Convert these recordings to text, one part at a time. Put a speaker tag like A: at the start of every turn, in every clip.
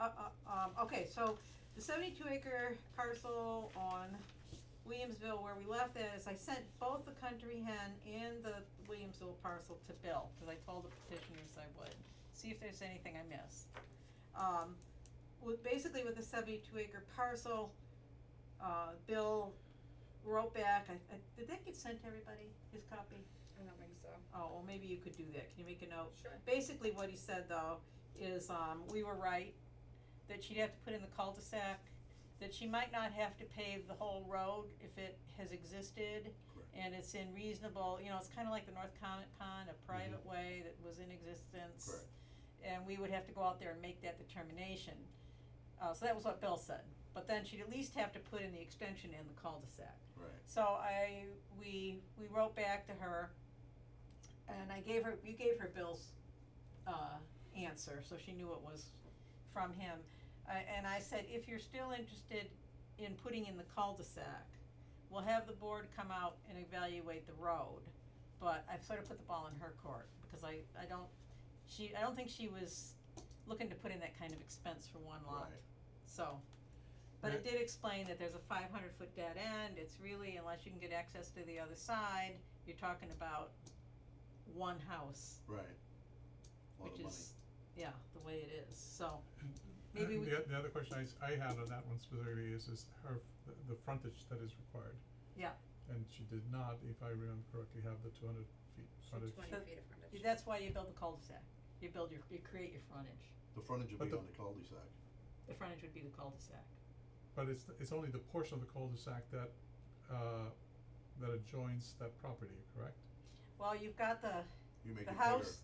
A: uh, uh, um, okay, so the seventy-two acre parcel on Williamsville where we left that is I sent both the country hen and the Williamsville parcel to Bill, cause I told the petitioners I would, see if there's anything I missed. Um, with, basically with the seventy-two acre parcel, uh, Bill wrote back, I, I, did that get sent to everybody, his copy?
B: I don't think so.
A: Oh, well, maybe you could do that, can you make a note?
B: Sure.
A: Basically, what he said though, is, um, we were right, that she'd have to put in the cul-de-sac, that she might not have to pave the whole road if it has existed.
C: Correct.
A: And it's in reasonable, you know, it's kinda like the North Comet Pond, a private way that was in existence.
C: Mm-hmm. Correct.
A: And we would have to go out there and make that determination, uh, so that was what Bill said, but then she'd at least have to put in the extension in the cul-de-sac.
C: Right.
A: So I, we, we wrote back to her, and I gave her, you gave her Bill's, uh, answer, so she knew it was from him. I and I said, if you're still interested in putting in the cul-de-sac, we'll have the board come out and evaluate the road. But I've sort of put the ball in her court, because I, I don't, she, I don't think she was looking to put in that kind of expense for one lot.
C: Right.
A: So, but it did explain that there's a five hundred foot dead end, it's really, unless you can get access to the other side, you're talking about one house,
C: Right. Lot
A: which
C: of money.
A: is, yeah, the way it is, so, maybe we,
D: Uh, The, the other question I, s- I had on that one specifically is, is her, f- the, the frontage that is required.
A: Yeah.
D: And she did not, if I remember correctly, have the two hundred feet frontage.
B: Twenty
A: So-
B: feet of frontage.
A: that's why you build the cul-de-sac, you build your, you create your frontage,
C: The frontage would
D: But
C: be
D: the-
C: on the cul-de-sac.
A: the frontage would be the cul-de-sac.
D: But it's, it's only the portion of the cul-de-sac that, uh, that adjoins that property, correct?
A: Well, you've got the,
C: You make
A: the
C: it bigger.
A: house,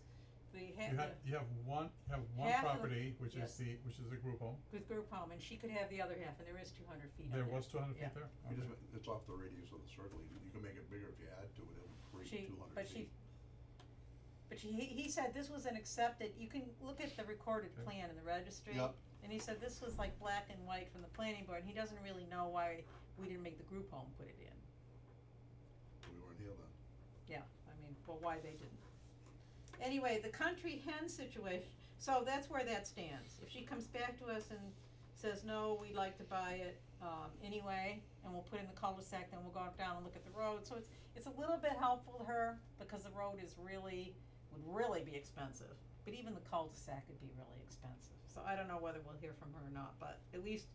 A: the ha-
D: You have,
A: the-
D: you have one, you have one
A: Half of the-
D: property, which
A: yes.
D: is the, which is the group home,
A: with group home, and she could have the other half, and there is two hundred feet on
D: there was two hundred
A: Yeah.
D: feet there?
C: You just
D: Okay.
C: ma- it's off the radius of the circle. You, you can make it bigger if you add to it. It would
A: She,
C: create two hundred
A: but
C: feet.
A: she, but she, he he said this was an accepted, you can look at the recorded
D: Okay.
A: plan in the registry.
C: Yep.
A: And he said this was like black and white from the planning board, and he doesn't really know why we didn't make the group home put it in,
C: We weren't here then.
A: yeah, I mean, well, why they didn't. Anyway, the country hen situation, so that's where that stands, if she comes back to us and says, no, we'd like to buy it, um, anyway, and we'll put in the cul-de-sac, then we'll go up down and look at the road, so it's, it's a little bit helpful to her, because the road is really, would really be expensive, but even the cul-de-sac would be really expensive, so I don't know whether we'll hear from her or not, but at least,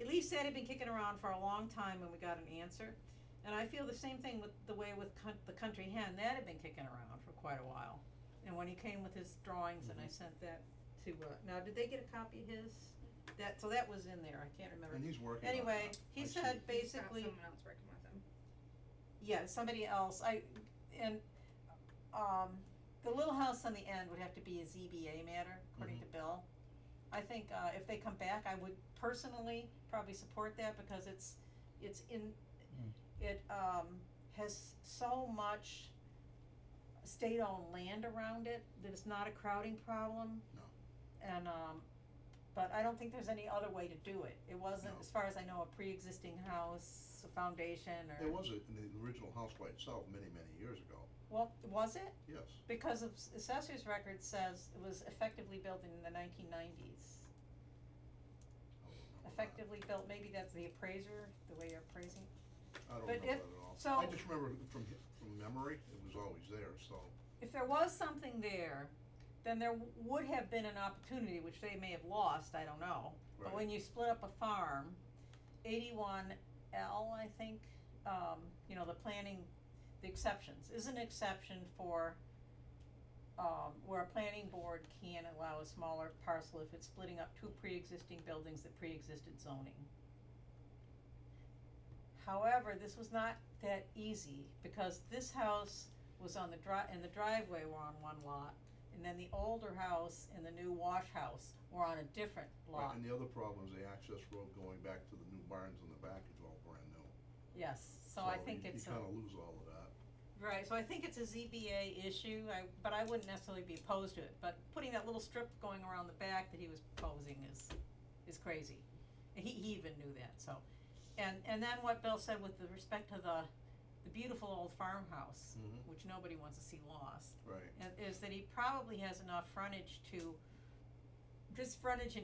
A: at least that had been kicking around for a long time when we got an answer, and I feel the same thing with the way with coun- the country hen, that had been kicking around for quite a while, and when he came with his drawings, and I sent that to, uh, now, did they get a copy of his? That, so that was in there, I can't remember,
C: And he's working on
A: anyway,
C: that.
A: he
C: I see
A: said
C: it.
B: He's got
A: basically,
B: someone else working with him.
A: yeah, somebody else, I, and, um, the little house on the end would have to be a ZBA matter, according
C: Mm-hmm.
A: to Bill. I think, uh, if they come back, I would personally probably support that because it's, it's in,
D: Mm.
A: it, um, has so much state-owned land around it that it's not a crowding problem.
C: No.
A: And, um, but I don't think there's any other way to do it. It wasn't,
C: No.
A: as far as I know, a pre-existing house, a foundation or.
C: There was it in the original house by itself many, many years ago.
A: Well, was it?
C: Yes.
A: Because of s- assessor's record says it was effectively built in the nineteen nineties.
C: I don't remember that.
A: Effectively built, maybe that's the appraiser, the way you're appraising.
C: I don't
A: but
C: remember
A: if-
C: that at all. I
A: so-
C: just remember from hi- from memory, it was always there. So
A: If there was something there, then there w- would have been an opportunity, which they may have lost, I don't know. But
C: right.
A: when you split up a farm, eighty-one L, I think, um, you know, the planning, the exceptions, is an exception for, um, where a planning board can allow a smaller parcel if it's splitting up two pre-existing buildings that pre-existed zoning. However, this was not that easy, because this house was on the dri- and the driveway were on one lot, and then the older house and the new wash house were on a different lot.
C: Right, And the other problem is the access road going back to the new barns in the back is all brand new.
A: Yes, so I think
C: you,
A: it's
C: you
A: a,
C: kind of lose all of that.
A: right, so I think it's a ZBA issue, I, but I wouldn't necessarily be opposed to it, but putting that little strip going around the back that he was proposing is, is crazy. And He, he even knew that, so, and, and then what Bill said with the respect to the, the beautiful old farmhouse,
C: Mm-hmm.
A: which nobody wants to see lost,
C: Right.
A: and is that he probably has enough frontage to, just frontage in